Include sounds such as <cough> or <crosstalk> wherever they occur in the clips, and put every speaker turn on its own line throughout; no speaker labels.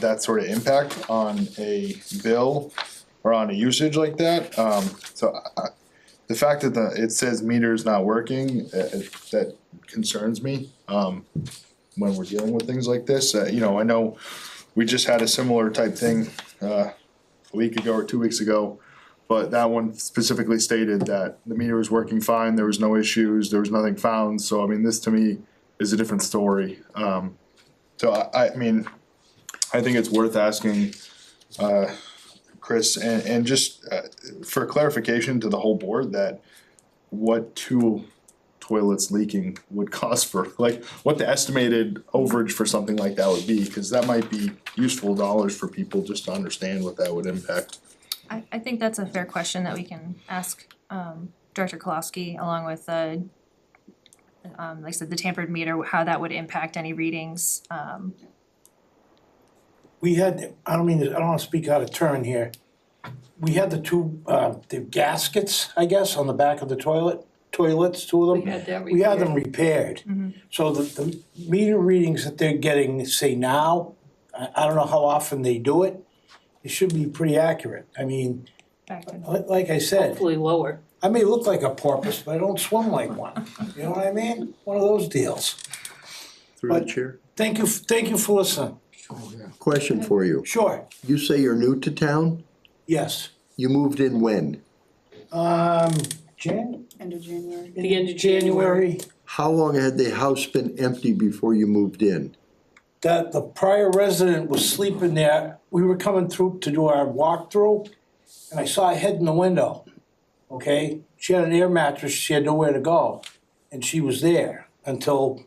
that sort of impact on a bill or on a usage like that. Um, so I, I, the fact that the, it says meter's not working, uh, uh, that concerns me, um, when we're dealing with things like this. Uh, you know, I know we just had a similar type thing, uh, a week ago or two weeks ago. But that one specifically stated that the meter was working fine, there was no issues, there was nothing found, so I mean, this to me is a different story. Um, so I, I mean, I think it's worth asking, uh, Chris, and, and just, uh, for clarification to the whole board that what two toilets leaking would <laughs> cost for, like, what the estimated overage for something like that would be, cause that might be useful dollars for people just to understand what that would impact.
I I think that's a fair question that we can ask um Director Kolowski along with uh um like I said, the tampered meter, how that would impact any readings, um
we had, I don't mean, to- I don't wanna speak out of turn here. We had the two, uh, the gaskets, I guess, on the back of the toilet, toilets, two of them.
We had that
We had them repaired. So the, the meter readings that they're getting, say now, I, I don't know how often they do it, it should be pretty accurate. I mean,
back to.
li- like I said,
Hopefully lower.
I may look like a porpoise, but I don't swim like one. You know what I mean? One of those deals.
Through the
But-
chair.
Thank you, thank you for listening.
Question for you.
Sure,
You say you're new to town?
yes.
You moved in when?
Um, Jan,
End of January.
The end of
January,
How long had the house been empty before you moved in?
that the prior resident was sleeping there, we were coming through to do our walkthrough, and I saw a head in the window, okay? She had an air mattress, she had nowhere to go, and she was there until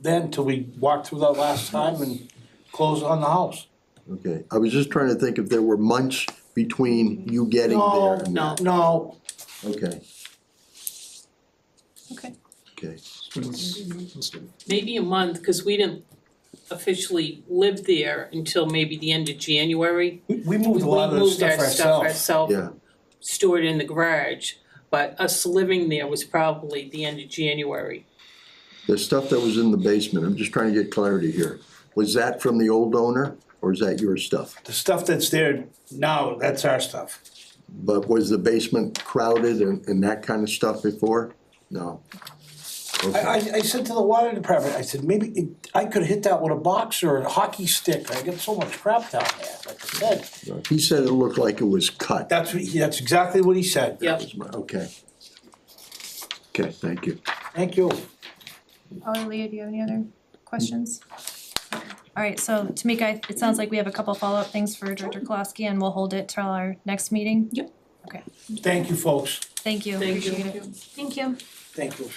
then, till we walked through that last time and closed on the house.
Okay, I was just trying to think if there were months between you getting there
No,
and
no,
that.
no,
Okay,
Okay.
okay.
Mm-hmm.
Maybe a month, cause we didn't officially live there until maybe the end of January.
we we
We
moved a lot of the
moved
stuff
our stuff
ourselves.
ourselves,
Yeah,
stored in the garage, but us living there was probably the end of January.
the stuff that was in the basement, I'm just trying to get clarity here. Was that from the old owner or is that your stuff?
The stuff that's there now, that's our stuff.
But was the basement crowded and, and that kind of stuff before? No.
I, I,
Okay,
I said to the water department, I said, maybe it, I could hit that with a box or a hockey stick, I get so much crap down there, like I said.
he said it looked like it was cut.
That's what, he- that's exactly what he said.
Yep.
Okay. Okay, thank you.
Thank you.
Holly, Oh, Leah, do you have any other questions? Alright, so Tamika, I- it sounds like we have a couple follow-up things for Director Kolowski and we'll hold it till our next meeting.
Yep.
Okay,
Thank you, folks.
thank you,
Thank you.
appreciate it. Thank you.
Thank you.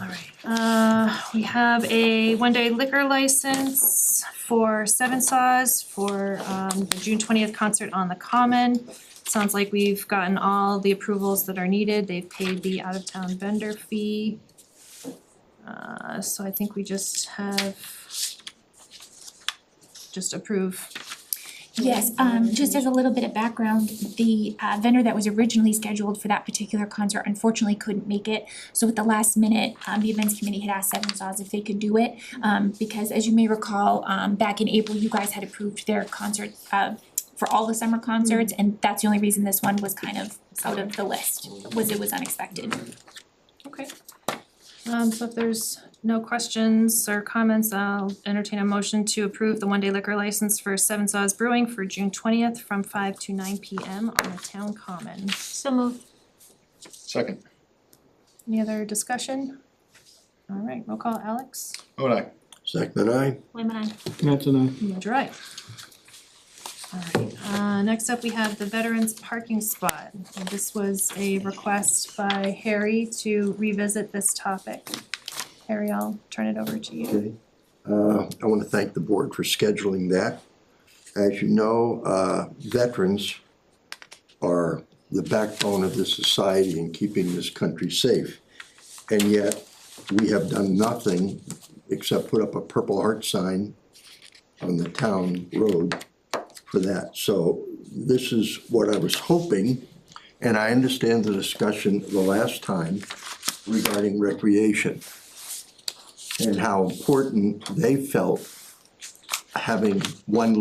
Alright, uh, we have a one-day liquor license for Seven Saws for um the June twentieth concert on the Common. Sounds like we've gotten all the approvals that are needed, they've paid the out-of-town vendor fee. Uh, so I think we just have just approve,
Yes, um, just as a little bit of background, the uh, vendor that was originally scheduled for that particular concert unfortunately couldn't make it. So at the last minute, um, the events committee had asked Seven Saws if they could do it. Um, because as you may recall, um, back in April, you guys had approved their concert, uh, for all the summer concerts. And that's the only reason this one was kind of out of the list, was it was unexpected.
okay. Um, so if there's no questions or comments, I'll entertain a motion to approve the one-day liquor license for Seven Saws Brewing for June twentieth from five to nine P M on the town common.
So moved.
Second,
Any other discussion? All right, roll call, Alex.
oh, I.
Second, I.
Women on.
That's right. Alright, uh, next up, we have the veterans parking spot. And This was a request by Harry to revisit this topic. Harry, I'll turn it over to you.
Okay. Uh, I want to thank the board for scheduling that. As you know, uh, veterans are the backbone of this society in keeping this country safe. And yet, we have done nothing except put up a Purple Heart sign on the town road for that. So this is what I was hoping, and I understand the discussion the last time regarding recreation and how important they felt having one